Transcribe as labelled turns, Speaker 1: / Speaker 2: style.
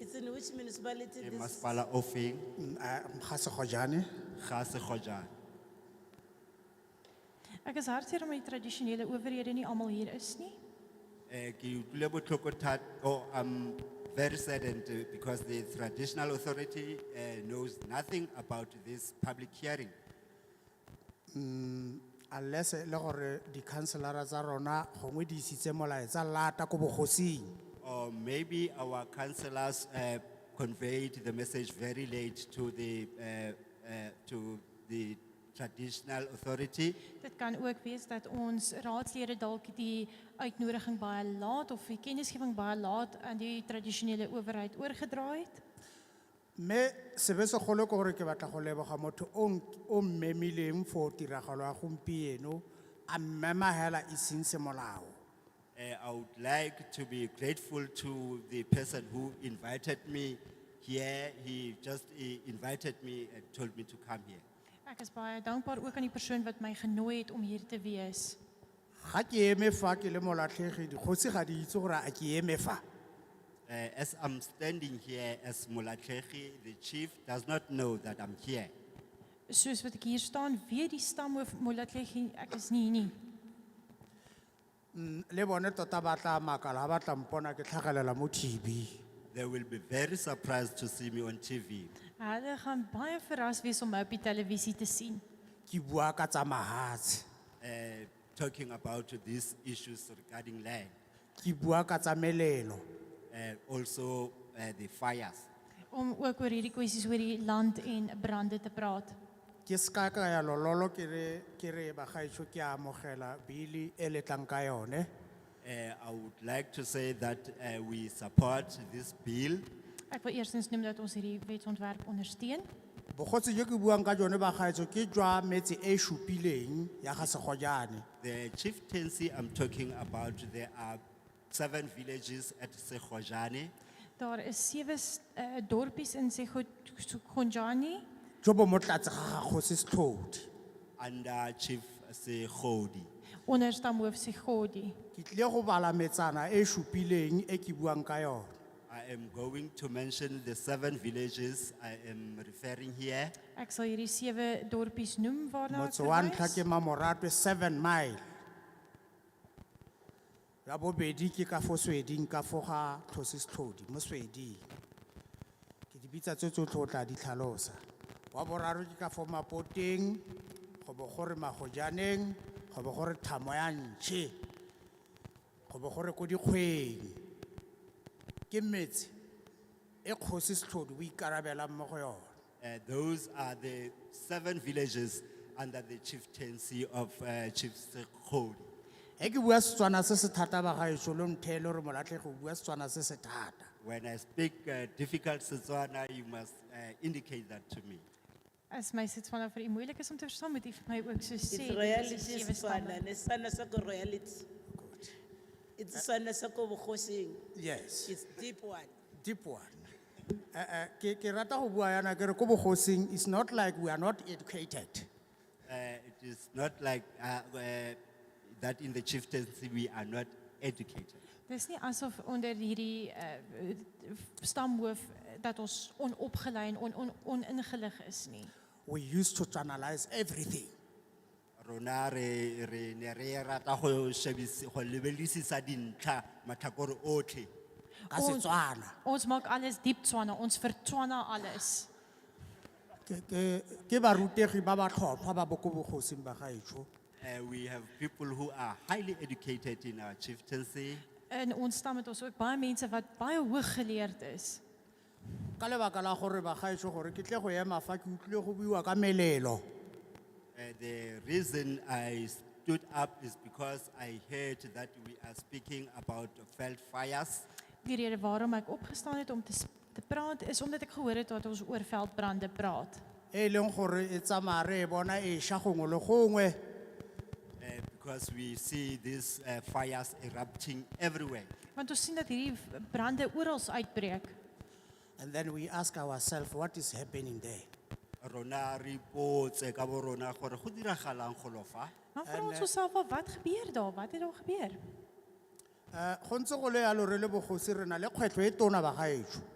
Speaker 1: in which municipality
Speaker 2: ke
Speaker 1: this,
Speaker 2: E masepala o feng
Speaker 3: Mm, ga segojane
Speaker 2: ga se gojana
Speaker 4: Ek is hartseer omdat die tradisionele owerhede nie almal hier is nie.
Speaker 2: Eh, ki utule botlhoko that- oh, I'm very saddened eh, because the traditional authority eh, knows nothing about this public hearing.
Speaker 3: unless e le gore di-counselara tsa rona gongwe di isitse molaetsa lata ko bogosing
Speaker 2: Or maybe our councillors eh, conveyed the message very late to the, eh, eh, to the traditional authority.
Speaker 4: Dit kan ook wees dat ons raadslede dalk die uitnodiging baie laat of die kennisgewing baie laat aan die tradisionele owerheid oorgedra het.
Speaker 3: mme sebe segolo ke gore ke batla go leboga motho o nk- o mmemileng for tiragalo ya gompieno a mmema hela e seng semolao
Speaker 2: Eh, I would like to be grateful to the person who invited me here. He just eh, invited me and told me to come here.
Speaker 4: Ek is baie dankbaar ook aan die persoon wat my genooi het om hier te wees.
Speaker 3: ga ke eme fa ke le molatlhegi dikgosi ga di itse gore a ke eme fa
Speaker 2: Uh, as I'm standing here as Mulatlehi, the chief does not know that I'm here.
Speaker 4: Soos wat ek hier staan, weet die stamhoof Molatlegi ek is nie hier nie.
Speaker 3: Mm, le bone tota ba tla makala ga ba tla mpona ke tlhagelela mo tb
Speaker 2: They will be very surprised to see me on TV.
Speaker 4: Hulle gaan baie verras wees om my op die televisie te sien.
Speaker 3: ke bua ka tsa mahatshe
Speaker 2: Uh, talking about these issues regarding land,
Speaker 3: ke bua ka tsa melelo
Speaker 2: uh, also uh, the fires.
Speaker 4: om ook oor hierdie kwessies oor die land en brande te praat.
Speaker 3: ke seka ka ya lololo ke re ke re bagaetsho ke a amogela bili e le tlang ka yone
Speaker 2: Uh, I would like to say that uh, we support this bill.
Speaker 4: Ek wil eerstens noem dat ons hierdie wetsontwerp ondersteun.
Speaker 3: bogotsi jo ke buang ka jone bagaetsho ke jwa metse e supileng ya ga segojane
Speaker 2: The chieftaincy I'm talking about, there are seven villages at Sekhojane.
Speaker 4: Daar is sewe s- eh, dorpies in Sekhonjani
Speaker 3: jo bo mo tlatse ga gagosi setlhodi
Speaker 2: under Chief Sekhodi.
Speaker 4: onder stamhoof Segodi.
Speaker 3: ke tlile go bala metsana e supileng e ke buang ka yone
Speaker 2: I am going to mention the seven villages I am referring here.
Speaker 4: Ek sal hierdie sewe dorpies noem waarna ek
Speaker 3: motse wa ntlha
Speaker 4: verwys.
Speaker 3: ke mamoratwe seven mile ya bobedi ke ka fo sweding ka fo ga tlhosi setlhodi mo sweding ke di bitsa tse tsotlhe o tla di tlhalosa wa boraro ke ka fo mapoteng go bo gore magojaneng go bo gore thamo ya ntšhe go bo gore ko dikgweng ke metse e kgosi setlhodi o ikarabelang mo go yone
Speaker 2: Uh, those are the seven villages under the chieftaincy of uh, Chief Sekhodi.
Speaker 3: Eki ke bua Setswana se se thata ba gaetsho lo ntheele gore molatlhege o bua Setswana se se thata.
Speaker 2: When I speak uh, difficult Setswana, you must uh, indicate that to me.
Speaker 4: As my sit vanaf vir u moeilik is om te verstaan, moet u vir my ook so sê.
Speaker 1: it's
Speaker 4: dit
Speaker 1: royalty
Speaker 4: is die sewe
Speaker 1: is Setswana,
Speaker 4: stamme.
Speaker 1: nesana sako royalty. It's Setswana sako bokosing,
Speaker 3: Yes,
Speaker 1: it's deep one.
Speaker 3: deep one. Eh eh ke ke rata go bua yana ke re ko bogosing it's not like we are not educated.
Speaker 2: Uh, it is not like uh, uh, that in the chieftaincy we are not educated.
Speaker 4: Dis nie asof onder hierdie uh, stamhoof eh, dat ons onopgelei en on, on, oningelig is nie.
Speaker 3: We used to analyze everything.
Speaker 2: Rona re re ne re rata go shebisi go lebelisisa dintlha matlhakore otlhe.
Speaker 3: ka
Speaker 4: Ons-
Speaker 3: Setswana.
Speaker 4: Ons maak alles diep Tswana, ons vertswana alles.
Speaker 3: Ke ke ke barutegi ba ba tlhophwa ba bo ko bogosing ba gaetsho.
Speaker 2: Uh, we have people who are highly educated in our chieftaincy.
Speaker 4: In ons stam het ons ook baie mense wat baie hoog geleerd is.
Speaker 3: Ka lebaka la gore ba gaetsho gore ke tle go ema fa ke utlwile go buiwa ka melelo.
Speaker 2: Uh, the reason I stood up is because I heard that we are speaking about felt fires.
Speaker 4: Die rede waarom ek opgestaan het om te s- te praat is omdat ek gehoor het dat ons oor veldbrande praat.
Speaker 3: E leng gore e tsamaya re e bona e sha gongwe le gongwe.
Speaker 2: Uh, because we see these uh, fires erupting everywhere.
Speaker 4: Want ons sien dat hierdie v- brande oral uitbreek.
Speaker 3: And then we ask ourselves, what is happening there?
Speaker 2: Rona re ipotse ka bo rona gore go diragalang go lo fa.
Speaker 4: Dan vra ons osself af wat gebeur daar? Wat het daar gebeur?
Speaker 3: Eh, go ntse go le yalo re le bogosi re na le kgwetlho e tona ba gaetsho.